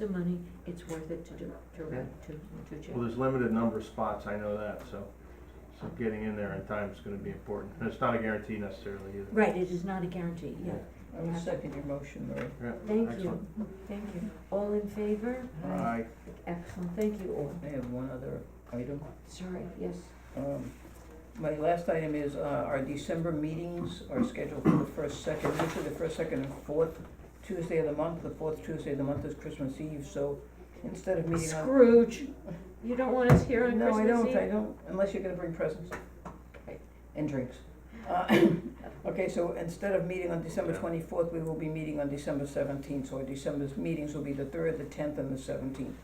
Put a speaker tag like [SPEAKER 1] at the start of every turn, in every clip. [SPEAKER 1] of money, it's worth it to do, to rent, to, to check.
[SPEAKER 2] Well, there's limited number of spots, I know that, so, so getting in there in time is gonna be important. And it's not a guarantee necessarily either.
[SPEAKER 1] Right, it is not a guarantee, yeah.
[SPEAKER 3] I will second your motion, Mary.
[SPEAKER 2] Yeah,
[SPEAKER 1] Thank you,
[SPEAKER 2] excellent.
[SPEAKER 1] thank you. All in favor?
[SPEAKER 2] Aye,
[SPEAKER 1] Excellent, thank you all.
[SPEAKER 3] I have one other item.
[SPEAKER 1] Sorry, yes.
[SPEAKER 3] Um, My last item is, uh, our December meetings are scheduled for the first, second, usually the first, second, and fourth Tuesday of the month. The fourth Tuesday of the month is Christmas Eve, so instead of meeting on.
[SPEAKER 1] Scrooge, you don't want us here on
[SPEAKER 3] No, I
[SPEAKER 1] Christmas
[SPEAKER 3] don't, I
[SPEAKER 1] Eve?
[SPEAKER 3] don't, unless you're gonna bring presents. Okay, And drinks. Uh, Okay, so instead of meeting on December
[SPEAKER 2] Yeah.
[SPEAKER 3] twenty-fourth, we will be meeting on December seventeenth, so our December's meetings will be the third, the tenth, and the seventeenth.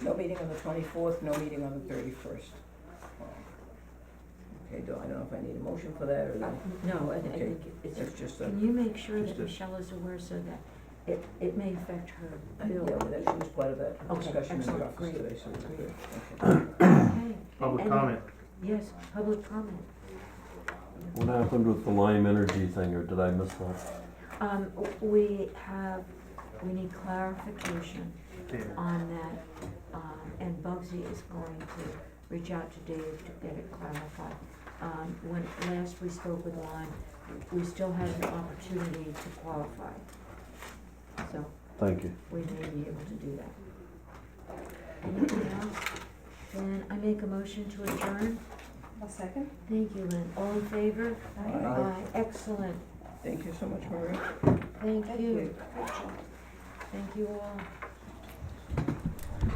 [SPEAKER 3] No meeting on the twenty-fourth, no meeting on the thirty-first. Okay, do, I don't know if I need a motion for that, or
[SPEAKER 1] Uh,
[SPEAKER 3] that,
[SPEAKER 1] No, I I
[SPEAKER 3] Okay.
[SPEAKER 1] think it's,
[SPEAKER 3] it's just a,
[SPEAKER 1] can you make sure
[SPEAKER 2] Just
[SPEAKER 1] that
[SPEAKER 2] a-
[SPEAKER 1] Michelle is aware so that it, it may affect her
[SPEAKER 3] yeah,
[SPEAKER 1] bill?
[SPEAKER 3] well, that she was part of that
[SPEAKER 1] Okay,
[SPEAKER 3] discussion in
[SPEAKER 1] excellent,
[SPEAKER 3] the office
[SPEAKER 1] great,
[SPEAKER 3] today, so it's
[SPEAKER 1] great.
[SPEAKER 3] good, okay.
[SPEAKER 1] Okay,
[SPEAKER 2] public
[SPEAKER 1] And-
[SPEAKER 2] comment.
[SPEAKER 1] yes, public comment.
[SPEAKER 4] What happened with the Lime Energy thing, or did I miss that?
[SPEAKER 1] Um, w- we have, we need clarification
[SPEAKER 2] David.
[SPEAKER 1] on that, um, and Bugsy is going to reach out to Dave to get it clarified. Um, when last we spoke with Lon, we still had an opportunity to qualify. So
[SPEAKER 4] Thank you.
[SPEAKER 1] we may be able to do that. Anything else? Then I make a motion to adjourn.
[SPEAKER 5] A second?
[SPEAKER 1] Thank you, Lynn. All in favor?
[SPEAKER 3] Aye.
[SPEAKER 1] Excellent.
[SPEAKER 3] Thank you so much, Marie.
[SPEAKER 1] Thank
[SPEAKER 5] Thank
[SPEAKER 1] you.
[SPEAKER 5] you. Good job.
[SPEAKER 1] Thank you all.